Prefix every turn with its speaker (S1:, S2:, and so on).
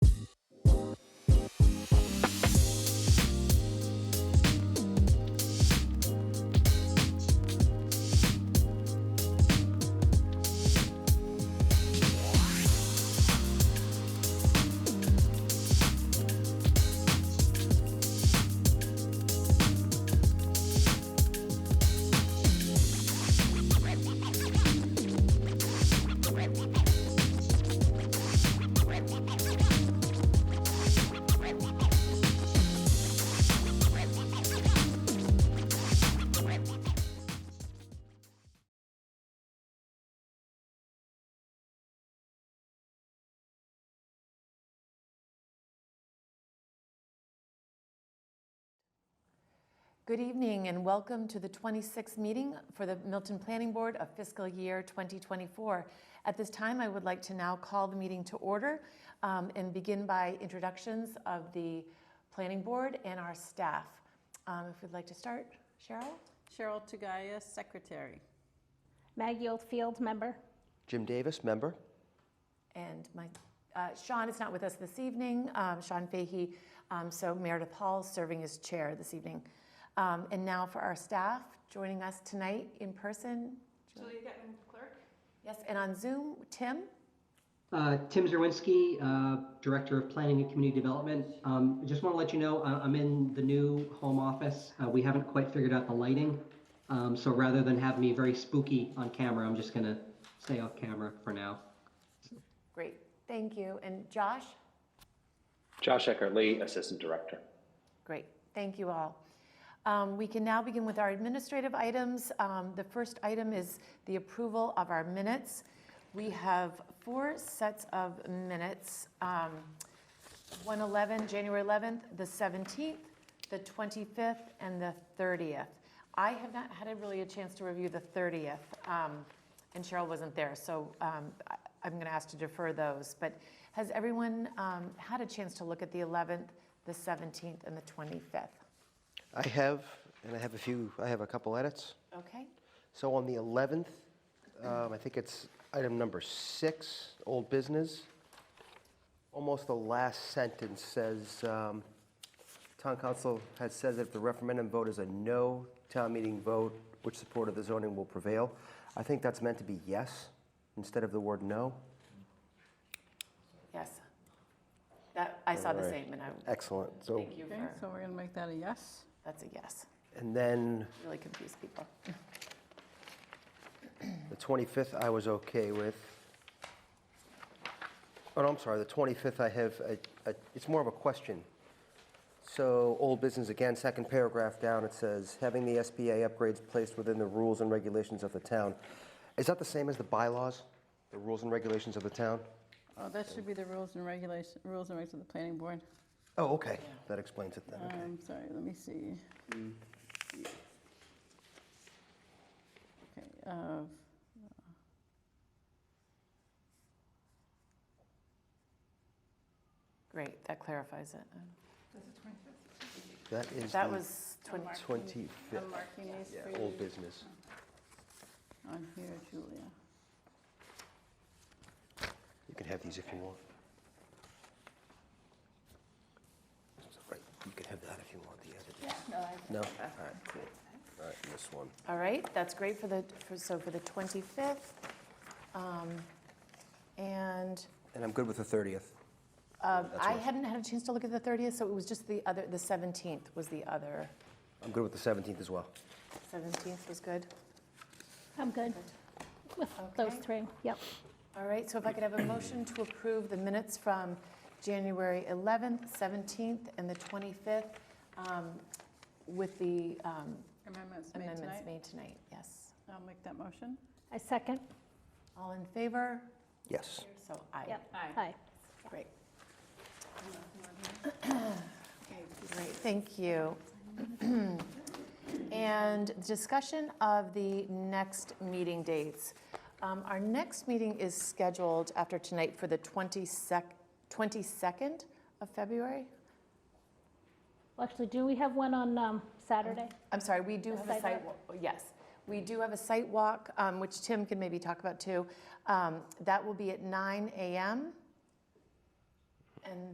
S1: Good evening and welcome to the 26th meeting for the Milton Planning Board of fiscal year 2024. At this time, I would like to now call the meeting to order um, and begin by introductions of the Planning Board and our staff. Um, If we'd like to start, Cheryl?
S2: Cheryl Taggias, Secretary.
S3: Maggie Oldfield, member.
S4: Jim Davis, member.
S1: And my, uh, Sean is not with us this evening, um, Sean Fahey, um, so Meredith Hall serving as chair this evening. Um, And now for our staff, joining us tonight in person. Julia Getman, clerk. Yes, and on Zoom, Tim?
S5: Uh, Tim Zerwinski, uh, Director of Planning and Community Development. Um, I Just want to let you know, I- I'm in the new home office. Uh, We haven't quite figured out the lighting. Um, So rather than have me very spooky on camera, I'm just going to stay off camera for now.
S1: Great, thank you. And Josh?
S6: Josh Eckert Lee, Assistant Director.
S1: Great, thank you all. Um, We can now begin with our administrative items. Um, The first item is the approval of our minutes. We have four sets of minutes. um, 111, January 11th, the 17th, the 25th, and the 30th. I have not had a really a chance to review the 30th, um, and Cheryl wasn't there, so um, I- I'm going to ask to defer those. But has everyone um, had a chance to look at the 11th, the 17th, and the 25th?
S4: I have, and I have a few, I have a couple edits.
S1: Okay,
S4: So on the 11th, um, I think it's item number six, old business. Almost the last sentence says, um, "Town council has said that if the referendum vote is a no, town meeting vote, which support of the zoning will prevail." I think that's meant to be yes instead of the word no.
S1: yes. That, I saw the
S4: Alright.
S1: same, and I,
S4: Excellent. So,
S1: thank you
S2: Okay,
S1: for,
S2: so we're gonna make that a yes.
S1: that's a yes.
S4: and then
S1: Really confused people.
S4: The 25th, I was okay with. Oh, no, I'm sorry, the 25th, I have, a- a- it's more of a question. So, old business again, second paragraph down, it says, "Having the SBA upgrades placed within the rules and regulations of the town." Is that the same as the bylaws, the rules and regulations of the town?
S2: Oh, that should be the rules and regulation, rules and regs of the planning board.
S4: Oh, okay, that explains it then, okay. Mm.
S2: Um, sorry, let me see. Okay, uh,
S1: Great, that clarifies it.
S4: That is
S1: That
S4: the
S1: was 20.
S2: marking-
S4: 25th,
S2: I'm marking these
S4: yeah,
S2: for
S4: old
S2: you
S4: business.
S2: on here, Julia.
S4: You can have these if you want. Right, you can have that if you want, the other. No? All right, cool. All right, and this one.
S1: All right, that's great for the, for- so for the 25th. um, And
S4: And I'm good with the 30th.
S1: um,
S4: That's
S1: I
S4: right.
S1: hadn't had a chance to look at the 30th, so it was just the other, the 17th was the other,
S4: I'm good with the 17th as well.
S1: 17th was good.
S3: I'm good with those
S1: Okay.
S3: three. Yep.
S1: All right, so if I could have a motion to approve the minutes from January 11th, 17th, and the 25th um, with the um,
S2: Amendments made
S1: amendments
S2: tonight.
S1: made tonight, yes.
S2: I'll make that motion.
S3: I second.
S1: All in favor?
S4: Yes.
S1: So aye.
S3: Yep.
S2: Aye.
S3: Aye.
S1: Great. Okay, Great, thank you. And discussion of the next meeting dates. Um, Our next meeting is scheduled after tonight for the 22nd 22nd of February?
S3: Well, actually, do we have one on um, Saturday?
S1: I'm sorry, we do have a
S3: site
S1: site, wa- yes. We do have a site walk, um, which Tim can maybe talk about too. Um, That will be at 9 AM. And